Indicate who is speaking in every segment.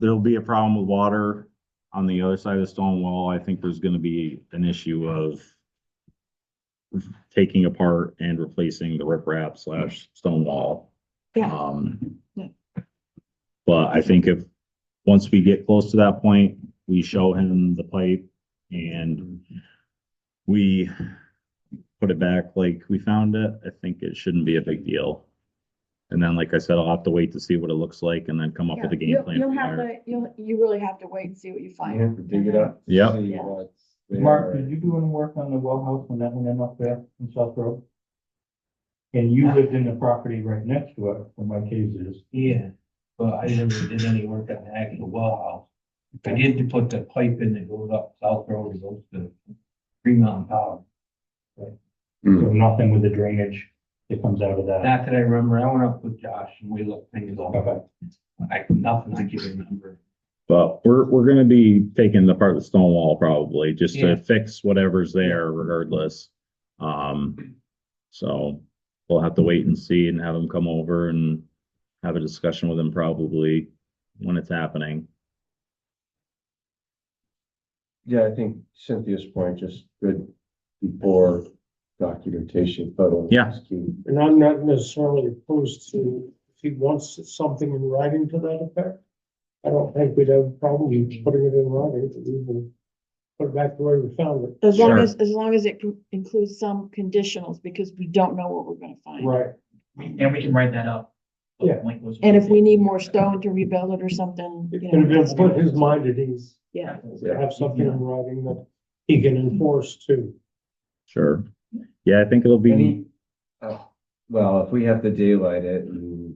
Speaker 1: there'll be a problem with water on the other side of the stone wall. I think there's gonna be an issue of taking apart and replacing the riprap slash stone wall.
Speaker 2: Yeah.
Speaker 1: Um,
Speaker 2: Yeah.
Speaker 1: but I think if, once we get close to that point, we show him the pipe and we put it back like we found it, I think it shouldn't be a big deal. And then, like I said, I'll have to wait to see what it looks like and then come up with a
Speaker 2: Yeah,
Speaker 1: game
Speaker 2: you'll-
Speaker 1: plan.
Speaker 2: You'll
Speaker 1: from
Speaker 2: have
Speaker 1: there.
Speaker 2: to, you'll, you really have to wait and see what you
Speaker 3: I
Speaker 2: find.
Speaker 3: have to dig it up.
Speaker 1: Yep.
Speaker 3: see
Speaker 2: Yeah.
Speaker 3: what's there.
Speaker 4: Mark, did you do any work on the well house when that went in up there in South Road? And you lived in the property right next to it, where my case is.
Speaker 5: Yeah, but I never did any work on the actual well house. I did put the pipe in that goes up South Road, and goes to Green Mountain Power.
Speaker 3: Hmm.
Speaker 4: So nothing with the drainage that comes out of that.
Speaker 5: Not that I remember, I went up with Josh and we looked things over.
Speaker 4: Okay.
Speaker 5: I, nothing I can remember.
Speaker 1: But we're, we're gonna be taking apart the stone wall probably, just
Speaker 5: Yeah.
Speaker 1: to fix whatever's there regardless. Um, so we'll have to wait and see and have them come over and have a discussion with them probably when it's happening.
Speaker 3: Yeah, I think Cynthia's point, just good before documentation, photo.
Speaker 1: Yeah.
Speaker 3: is key.
Speaker 6: And I'm not necessarily opposed to, if he wants something in writing to that effect. I don't think we'd have a problem
Speaker 1: Mm-hmm.
Speaker 6: with putting it in writing, we will put it back the way we found it.
Speaker 2: As long
Speaker 1: Sure.
Speaker 2: as, as long as it con- includes some conditionals, because we don't know what we're gonna find.
Speaker 6: Right.
Speaker 7: And we can write that up.
Speaker 6: Yeah.
Speaker 2: And if we need more stone to rebuild it or something, you know.
Speaker 6: And it'll put his mind at ease,
Speaker 2: Yeah,
Speaker 3: Yeah.
Speaker 6: to have something in writing that he can enforce too.
Speaker 1: Sure. Yeah, I think it'll be,
Speaker 3: Any, uh, well, if we have to daylight it, and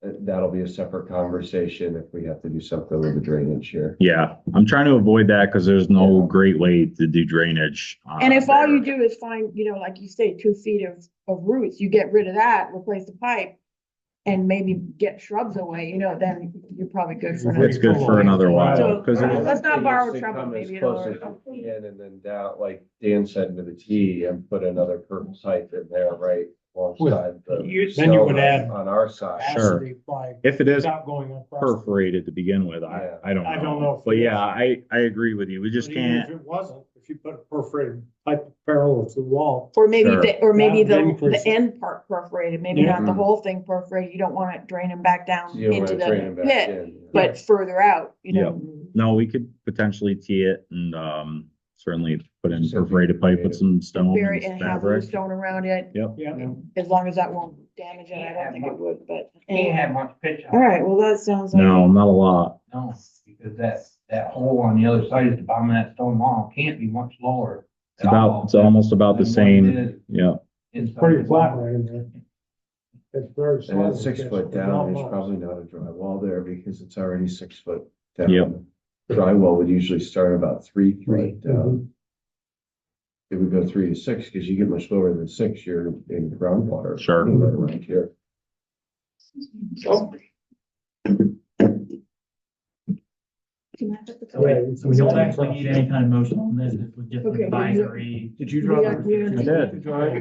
Speaker 3: that- that'll be a separate conversation if we have to do something with the drainage here.
Speaker 1: yeah, I'm trying to avoid that because there's no
Speaker 3: Yeah.
Speaker 1: great way to do drainage. uh,
Speaker 2: and if all
Speaker 1: there.
Speaker 2: you do is find, you know, like you say, two feet of, of roots, you get rid of that, replace the pipe. And maybe get shrubs away, you know, then you're probably good for another.
Speaker 1: It's good for another while, because
Speaker 2: So-
Speaker 1: it-
Speaker 2: Let's not borrow
Speaker 3: Just
Speaker 2: trouble,
Speaker 3: come as
Speaker 2: maybe it'll-
Speaker 3: close as you can, And then down, like Dan said, to the T and put another purple pipe in there, right? Alongside the.
Speaker 6: You- then you would
Speaker 3: cell
Speaker 6: add-
Speaker 3: On our side.
Speaker 1: Sure.
Speaker 6: Capacity by-
Speaker 1: if it is
Speaker 6: Without going across.
Speaker 1: perforated to begin with, I,
Speaker 3: Yeah.
Speaker 1: I don't know.
Speaker 6: I don't know if-
Speaker 1: But yeah, I, I agree with you. We just
Speaker 6: But even
Speaker 1: can't.
Speaker 6: If it wasn't, if you put a perforated pipe parallel to the wall,
Speaker 2: Or maybe,
Speaker 1: Sure.
Speaker 2: the- or maybe
Speaker 6: Yeah,
Speaker 2: the,
Speaker 6: maybe for-
Speaker 2: the end part perforated, maybe
Speaker 6: Yeah.
Speaker 2: not the whole thing perforated, you don't want it draining back down
Speaker 3: You don't
Speaker 2: into
Speaker 3: wanna drain it
Speaker 2: the
Speaker 3: back
Speaker 2: pit,
Speaker 3: in.
Speaker 2: but further out, you know.
Speaker 1: No, we could potentially tee it and, um, certainly put in
Speaker 3: Something
Speaker 1: perforated pipe with
Speaker 3: creative.
Speaker 1: some stone
Speaker 2: Bury it
Speaker 1: and
Speaker 2: and have loose
Speaker 1: fabric.
Speaker 2: stone around it,
Speaker 6: yeah.
Speaker 2: as long as that won't damage it, I don't think it would, but.
Speaker 5: Can't have much pitch
Speaker 2: All
Speaker 5: on it,
Speaker 2: right, well, that sounds like.
Speaker 1: No, not a lot.
Speaker 5: no, because that, that hole on the other side of the bottom of that stone wall can't be much lower.
Speaker 1: It's about, it's almost about the same. Yeah,
Speaker 5: It's
Speaker 6: pretty flat right in there. It's very.
Speaker 3: And
Speaker 6: slight,
Speaker 3: then six
Speaker 6: it's
Speaker 3: foot
Speaker 6: not
Speaker 3: down, there's
Speaker 6: much.
Speaker 3: probably not a drywall there because it's already six foot down.
Speaker 1: Yep.
Speaker 3: Drywall would usually start about three
Speaker 6: Right. mhm.
Speaker 3: feet down. It would go three to six, because you get much lower than six, you're in groundwater.
Speaker 1: Sure.
Speaker 3: Anywhere Around here.
Speaker 6: Yeah,
Speaker 7: So we don't
Speaker 6: it's-
Speaker 7: actually need any kind of motion on this, it would just be
Speaker 2: Okay.
Speaker 7: advisory.
Speaker 3: Did you
Speaker 2: draw Yeah, the- yeah. did you-
Speaker 1: did
Speaker 3: Very
Speaker 1: I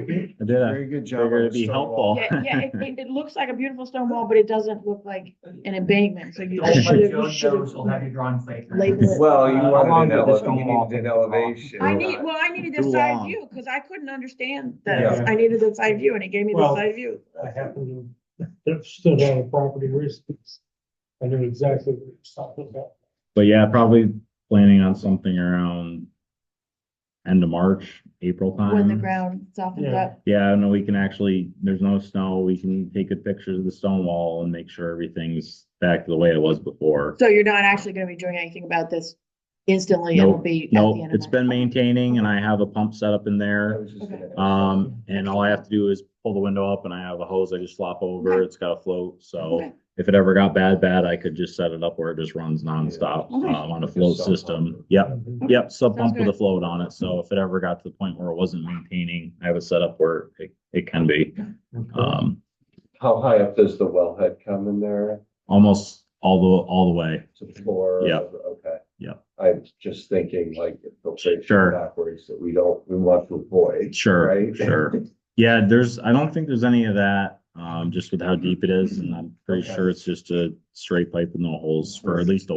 Speaker 1: did. I
Speaker 3: good
Speaker 1: figured
Speaker 3: job. on the
Speaker 1: it'd be
Speaker 3: stone wall.
Speaker 1: helpful.
Speaker 2: Yeah, yeah, it, it, it looks like a beautiful stone wall, but it doesn't look like an embankment, so you
Speaker 7: Don't let
Speaker 2: should have,
Speaker 7: Joe
Speaker 2: you should
Speaker 7: know, she'll have you
Speaker 2: have.
Speaker 7: drawing later.
Speaker 2: labeled it.
Speaker 3: Well, you
Speaker 7: Uh,
Speaker 3: wanted
Speaker 7: along
Speaker 3: an
Speaker 7: with the
Speaker 3: elevation,
Speaker 7: stone
Speaker 3: you
Speaker 7: wall.
Speaker 3: needed an elevation.
Speaker 2: I need, well, I needed
Speaker 1: Too
Speaker 2: the side
Speaker 1: long.
Speaker 2: view, cause I couldn't understand
Speaker 3: Yeah.
Speaker 2: this, I needed the side view, and it gave me the
Speaker 6: Well,
Speaker 2: side view.
Speaker 6: I happened to, that stood on a property recently. I knew exactly what you're talking about.
Speaker 1: But yeah, probably planning on something around end of March, April time.
Speaker 2: When the ground softens
Speaker 6: Yeah.
Speaker 2: up,
Speaker 1: Um, Yeah, no, we can actually, there's no snow. We can take a picture of the stone wall and make sure everything's back to the way it was before.
Speaker 2: so you're not actually gonna be doing anything about this instantly, it'll
Speaker 1: Nope,
Speaker 2: be. at the
Speaker 1: No,
Speaker 2: end of
Speaker 1: it's
Speaker 2: March.
Speaker 1: been maintaining and I have a pump set up in there.
Speaker 3: I was just gonna ask.
Speaker 1: Um, and all I have to do is pull the window up and I have a hose I just slop over,
Speaker 2: Okay.
Speaker 1: it's got a float, so
Speaker 2: Okay.
Speaker 1: if it ever got bad, bad, I could just set it up where it just runs nonstop,
Speaker 2: Okay.
Speaker 1: um, on a
Speaker 3: Like a
Speaker 1: float
Speaker 3: sub
Speaker 1: system.
Speaker 3: pump.
Speaker 1: Yep, yep, sub
Speaker 2: Sounds
Speaker 1: pump with a
Speaker 2: good.
Speaker 1: float on it, so if it ever got to the point where it wasn't maintaining, I have it set up where it, it can be. Um,
Speaker 3: How high up does the wellhead come in there?
Speaker 1: almost all the, all the way,
Speaker 3: To four?
Speaker 1: Yeah.
Speaker 3: Okay.
Speaker 1: Yeah.
Speaker 3: I'm just thinking like filtration
Speaker 1: Sure.
Speaker 3: backwards that we don't, we want to avoid.
Speaker 1: sure,
Speaker 3: Right?
Speaker 1: sure. Yeah, there's, I don't think there's any of that, um, just with how deep it is, and I'm pretty
Speaker 3: Mm-hmm. Okay.
Speaker 1: sure it's just a straight pipe with no holes for at least a